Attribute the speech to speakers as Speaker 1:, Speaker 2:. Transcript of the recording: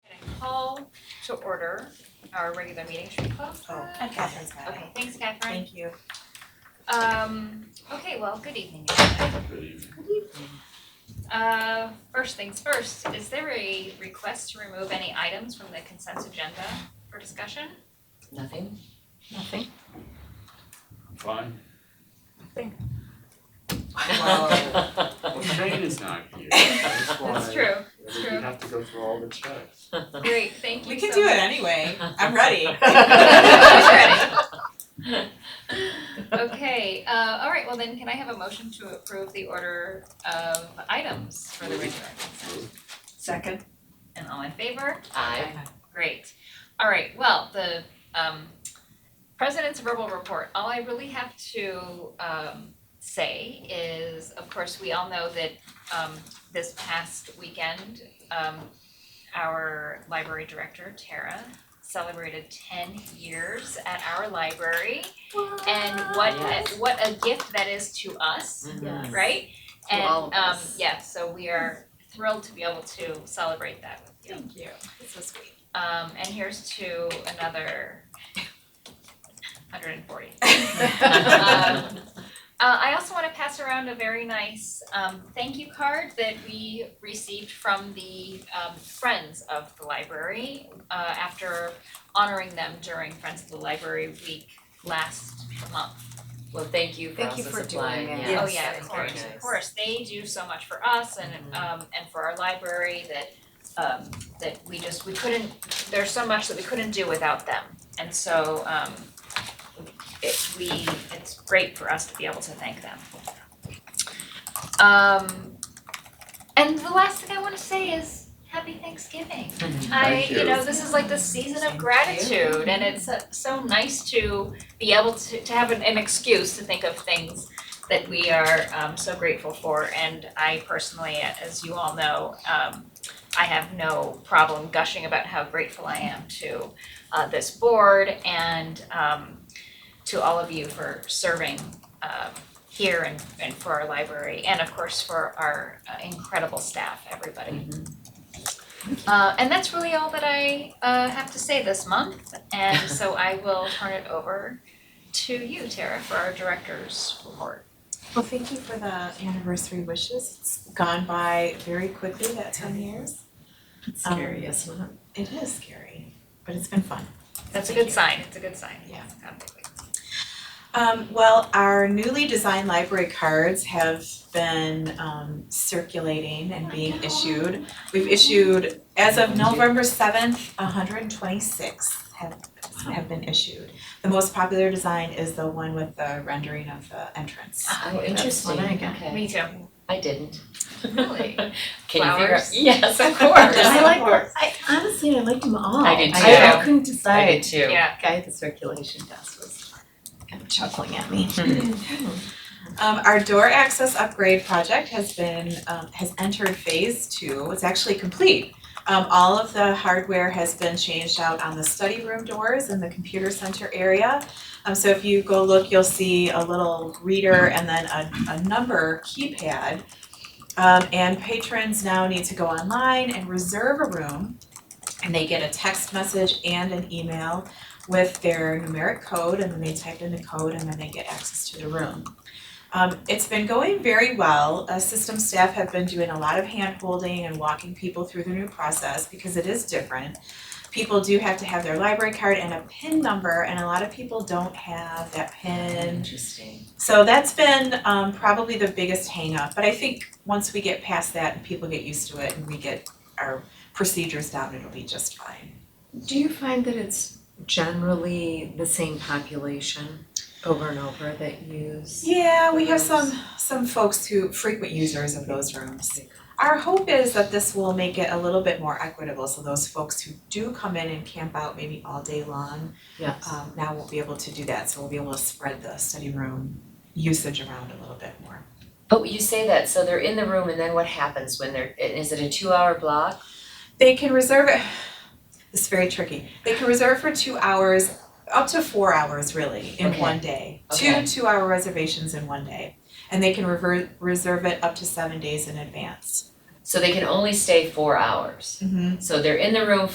Speaker 1: call to order our regular meeting. Should we close
Speaker 2: Oh,
Speaker 1: that?
Speaker 3: And Catherine's got it.
Speaker 1: Okay, thanks Catherine.
Speaker 3: Thank you.
Speaker 1: Um, okay, well, good evening. everybody. Uh, first things first, is there a request to remove any items from the consent agenda for discussion?
Speaker 3: Nothing?
Speaker 4: Nothing.
Speaker 5: Fine. Shane is not here. That's why.
Speaker 1: That's true, that's
Speaker 5: We
Speaker 1: true.
Speaker 5: have to go through all the checks.
Speaker 1: Great, thank you
Speaker 3: We can
Speaker 1: so
Speaker 3: do
Speaker 1: much.
Speaker 3: it anyway. I'm ready.
Speaker 1: Okay, uh, all right, well then, can I have a motion to approve the order of items for the regular consent?
Speaker 2: Second.
Speaker 1: And all in favor?
Speaker 4: I
Speaker 1: Great. All right, well, the um president's verbal report, all I really have to um say is, of course, we all know that um this past weekend, um our library director, Tara, celebrated ten years at our library. And what a,
Speaker 4: Yes.
Speaker 1: what a gift that is to us
Speaker 4: Mhm.
Speaker 1: right?
Speaker 4: To all of
Speaker 1: And um
Speaker 4: us.
Speaker 1: yeah, so we are thrilled to be able to celebrate that with you.
Speaker 3: Thank you. It's so sweet.
Speaker 1: Um and here's to another hundred and forty. Um, uh, I also wanna pass around a very nice um thank you card that we received from the um Friends of the Library uh after honoring them during Friends of the Library Week last month.
Speaker 4: Well, thank you for
Speaker 3: Thank
Speaker 4: also
Speaker 3: you for doing
Speaker 4: supplying,
Speaker 3: it.
Speaker 4: yeah.
Speaker 1: Oh
Speaker 3: Yes,
Speaker 1: yeah,
Speaker 3: that
Speaker 1: of
Speaker 3: is very
Speaker 1: course, of
Speaker 3: nice. Mm-hmm.
Speaker 1: course, they do so much for us and um and for our library that um that we just, we couldn't, there's so much that we couldn't do without them. And so um it we, it's great for us to be able to thank them. Um and the last thing I wanna say is happy Thanksgiving. I,
Speaker 5: Thank
Speaker 1: you
Speaker 5: you.
Speaker 1: know, this is like the season of gratitude and it's uh, so nice to be able to to have an an excuse to think of things that we are um so grateful for and I personally, as you all know, um I have no problem gushing about how grateful I am to uh this board and um to all of you for serving um here and and for our library and of course for our uh, incredible staff, everybody. Uh, and that's really all that I uh, have to say this month. And so I will turn it over to you, Tara, for our director's report.
Speaker 3: Well, thank you for the anniversary wishes. It's gone by very quickly, that ten years.
Speaker 4: It's
Speaker 3: Um,
Speaker 4: scary, isn't it?
Speaker 3: It is scary, but it's been fun.
Speaker 1: That's a good sign. It's a good sign.
Speaker 3: Yeah.
Speaker 1: Absolutely.
Speaker 3: Um, well, our newly designed library cards have been um, circulating and being issued. We've issued, as of November seventh, hundred and twenty-six have have been issued. The most popular design is the one with the rendering of the entrance.
Speaker 4: Oh, interesting,
Speaker 2: one I got.
Speaker 4: okay.
Speaker 1: Me too.
Speaker 4: I didn't.
Speaker 1: Really?
Speaker 4: Can you figure out?
Speaker 1: Flowers?
Speaker 4: Yes, of course.
Speaker 2: I like them. I honestly, I liked them all.
Speaker 4: I did
Speaker 2: I,
Speaker 1: too.
Speaker 2: I couldn't
Speaker 4: I did
Speaker 2: decide.
Speaker 4: too.
Speaker 1: Yeah.
Speaker 2: Guy at the circulation desk was kind of chuckling at me.
Speaker 3: Um, our door access upgrade project has been, um, has entered phase two, it's actually complete. Um, all of the hardware has been changed out on the study room doors in the computer center area. Um, so if you go look, you'll see a little reader and then a, a number keypad. Um, and patrons now need to go online and reserve a room. And they get a text message and an email with their numeric code and then they type in the code and then they get access to the room. Um, it's been going very well. Uh, system staff have been doing a lot of hand holding and walking people through the new process because it is different. People do have to have their library card and a PIN number, and a lot of people don't have that PIN.
Speaker 4: Interesting.
Speaker 3: So that's been um, probably the biggest hangup. But I think once we get past that and people get used to it and we get our procedures down, it'll be just fine.
Speaker 2: Do you find that it's generally the same population over and over that use?
Speaker 3: Yeah, we have some some folks who frequent users of those rooms. Our hope is that this will make it a little bit more equitable, so those folks who do come in and camp out maybe all day long,
Speaker 2: Yes.
Speaker 3: um, now won't be able to do that, so we'll be able to spread the study room usage around a little bit more.
Speaker 4: But you say that, so they're in the room and then what happens when they're, is it a two hour block?
Speaker 3: They can reserve it, it's very tricky, they can reserve for two hours, up to four hours really, in
Speaker 4: Okay.
Speaker 3: one day. Two
Speaker 4: Okay.
Speaker 3: two-hour reservations in one day, and they can revert, reserve it up to seven days in advance.
Speaker 4: So they can only stay four hours.
Speaker 3: Mm-hmm.
Speaker 4: So they're in the room